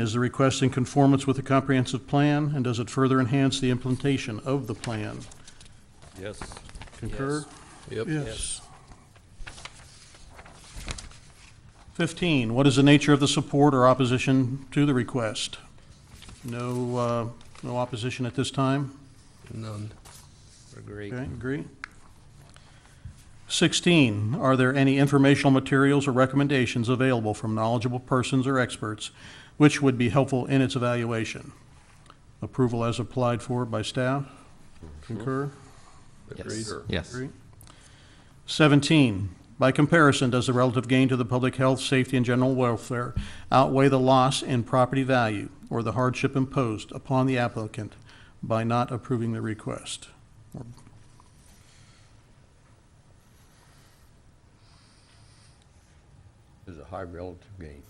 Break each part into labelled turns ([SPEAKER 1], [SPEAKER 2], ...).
[SPEAKER 1] Is the request in conformance with the comprehensive plan, and does it further enhance the implementation of the plan?
[SPEAKER 2] Yes.
[SPEAKER 1] Concur?
[SPEAKER 3] Yep.
[SPEAKER 1] Yes. Fifteen, what is the nature of the support or opposition to the request? No, uh, no opposition at this time?
[SPEAKER 3] None. Agree.
[SPEAKER 1] Okay, agree. Sixteen, are there any informational materials or recommendations available from knowledgeable persons or experts which would be helpful in its evaluation? Approval as applied for by staff? Concur?
[SPEAKER 2] Agreed.
[SPEAKER 4] Yes.
[SPEAKER 1] Agree. Seventeen, by comparison, does the relative gain to the public health, safety, and general welfare outweigh the loss in property value or the hardship imposed upon the applicant by not approving the request?
[SPEAKER 2] There's a high relative gain.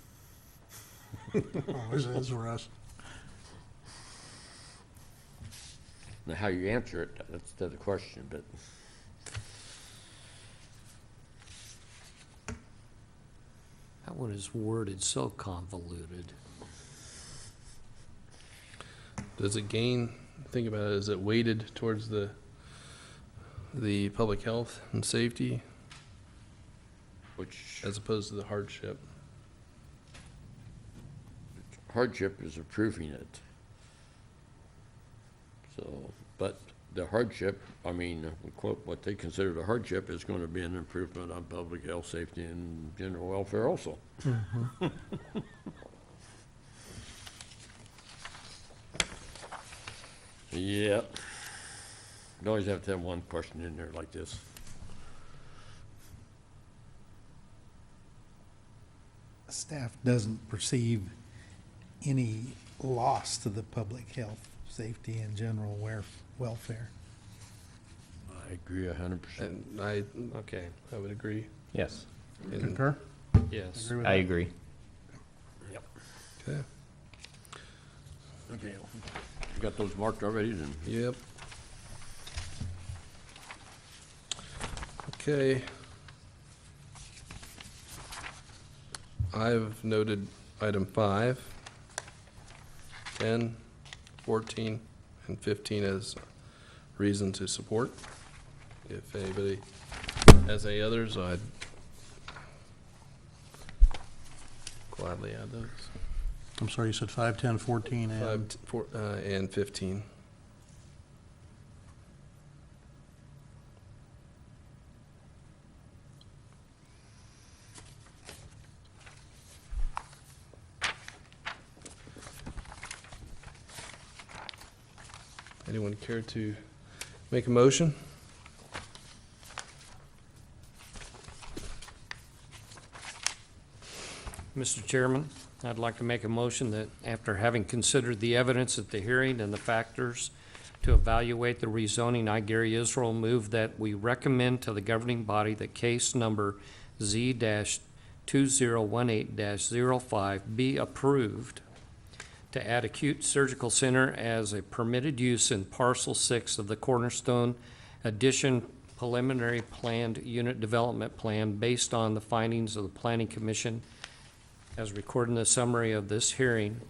[SPEAKER 1] Always is for us.
[SPEAKER 2] Now, how you answer it, that's the other question, but
[SPEAKER 5] That one is worded so convoluted.
[SPEAKER 3] Does it gain, think about it, is it weighted towards the, the public health and safety
[SPEAKER 2] which
[SPEAKER 3] as opposed to the hardship?
[SPEAKER 2] hardship is approving it. So, but the hardship, I mean, quote, what they consider the hardship is going to be an improvement on public health, safety, and general welfare also. Mm-hmm. Yeah. You always have to have one question in there like this.
[SPEAKER 6] staff doesn't perceive any loss to the public health, safety, and general wer- welfare.
[SPEAKER 2] I agree a hundred percent.
[SPEAKER 3] And I,
[SPEAKER 5] Okay,
[SPEAKER 3] I would agree.
[SPEAKER 4] Yes.
[SPEAKER 3] And-
[SPEAKER 1] Concur?
[SPEAKER 5] yes.
[SPEAKER 1] Agree with
[SPEAKER 4] I
[SPEAKER 1] that?
[SPEAKER 4] agree.
[SPEAKER 3] Okay,
[SPEAKER 2] Okay. You got those marked already, then?
[SPEAKER 3] yep. Okay. I've noted item five, ten, fourteen, and fifteen as reason to support. If anybody has any others, I'd gladly add those.
[SPEAKER 1] I'm sorry, you said five, ten, fourteen,
[SPEAKER 3] Five,
[SPEAKER 1] and
[SPEAKER 3] t- four, uh, and fifteen. Anyone care to make a motion?
[SPEAKER 5] Mr. Chairman, I'd like to make a motion that after having considered the evidence at the hearing and the factors to evaluate the rezoning, I, Gary Israel, move that we recommend to the governing body that case number Z two zero one eight 5 be approved to add acute surgical center as a permitted use in parcel six of the Cornerstone addition preliminary planned unit development plan based on the findings of the planning commission as recorded in the summary of this hearing,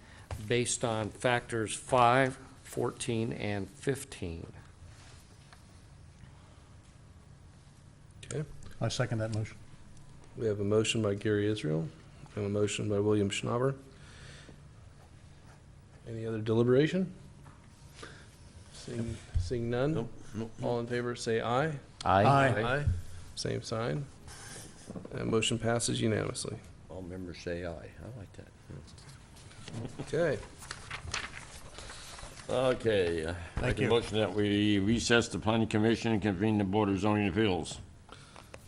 [SPEAKER 5] based on factors 5, 14, and 15.
[SPEAKER 3] Okay.
[SPEAKER 1] I second that motion.
[SPEAKER 3] We have a motion by Gary Israel and a motion by William Schnabber. Any other deliberation? Seeing, seeing none?
[SPEAKER 2] Nope, nope.
[SPEAKER 3] All in favor, say aye.
[SPEAKER 4] I.
[SPEAKER 1] Aye.
[SPEAKER 3] Same sign. That motion passes unanimously.
[SPEAKER 2] All members say aye. I like that.
[SPEAKER 3] Okay.
[SPEAKER 2] Okay. uh,
[SPEAKER 1] Thank
[SPEAKER 2] Make
[SPEAKER 1] you.
[SPEAKER 2] a motion that we recess the planning commission and convene the board of zoning appeals.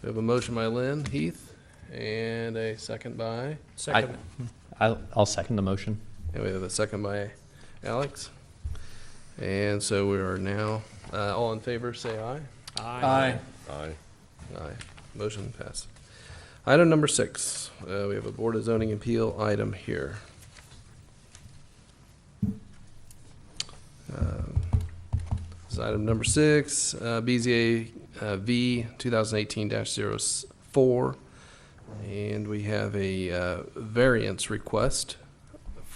[SPEAKER 3] We have a motion by Lynn Heath and a second by,
[SPEAKER 5] Second.
[SPEAKER 4] I'll, I'll second the motion.
[SPEAKER 3] and we have a second by Alex. And so we are now, uh, all in favor, say aye.
[SPEAKER 5] Aye.
[SPEAKER 2] Aye.
[SPEAKER 3] Aye. Motion passed. Item number six, uh, we have a Board of Zoning Appeal item here. Um, This is item number six, uh, BZA uh, V 2018-04. And we have a uh, variance request